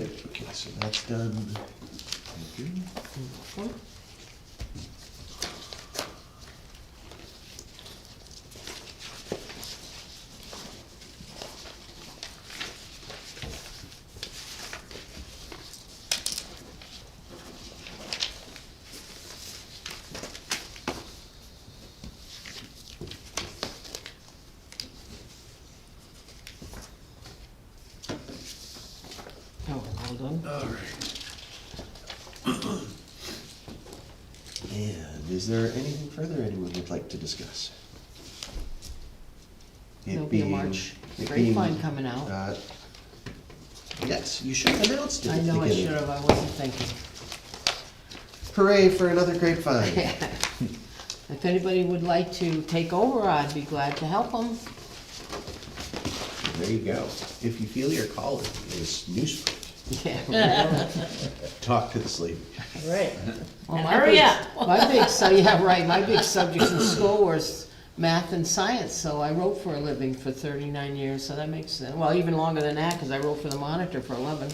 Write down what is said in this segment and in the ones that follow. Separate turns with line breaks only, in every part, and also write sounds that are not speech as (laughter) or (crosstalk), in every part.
So that's done. Thank you.
Oh, all done?
All right. And is there anything further anyone would like to discuss? It
There'll be a
being-
March
it being,
grapevine coming out.
uh, Yes, you should have announced it
I
at the
know I
beginning.
should have, I wasn't thinking.
Hooray for another grapevine.
(laughs) If anybody would like to take over, I'd be glad to help them.
There you go. If you feel your calling is newsprint,
(laughs) Yeah.
talk to this lady.
Right.
Well,
And
my
hurry
big- (laughs)
up.
My big, so, yeah, right, my big subjects in school was math and science, so I wrote for a living for thirty-nine years, so that makes, sense. well, even longer than that, cause I wrote for the Monitor for eleven.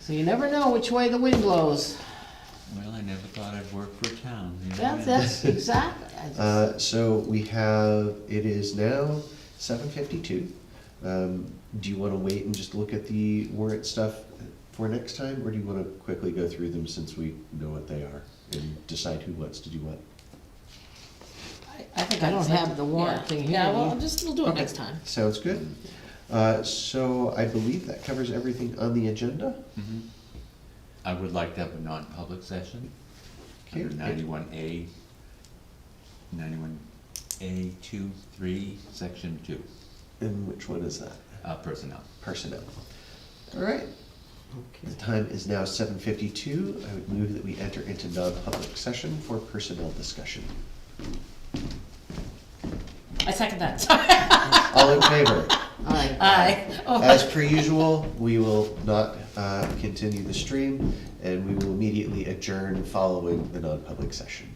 So you never know which way the wind blows.
Well, I never thought I'd work for a town. you know?
That's,
(laughs)
(laughs)
that's exactly, I just-
Uh, so we have, it is now seven fifty-two. Um, do you wanna wait and just look at the warrant stuff for next time, or do you wanna quickly go through them since we know what they are and decide who wants to do what?
I think
I don't
just
have
like-
the warrant
yeah.
thing here,
Yeah, well,
you-
I'll just, we'll do it
Okay.
next time.
Sounds good. Uh, so I believe that covers everything on the agenda.
Mhm. I would like to have a non-public session
Okay.
under ninety-one A, ninety-one A two, three, section two,
And which one is that?
uh, personnel.
Personnel. All right, the time is now seven fifty-two. I would move that we enter into non-public session for personnel discussion.
I second that, sorry.
(laughs)
All in favor?
all right.
(laughs)
Aye. Oh,
As per usual, we will not uh, continue the stream, and we will immediately adjourn following the non-public session.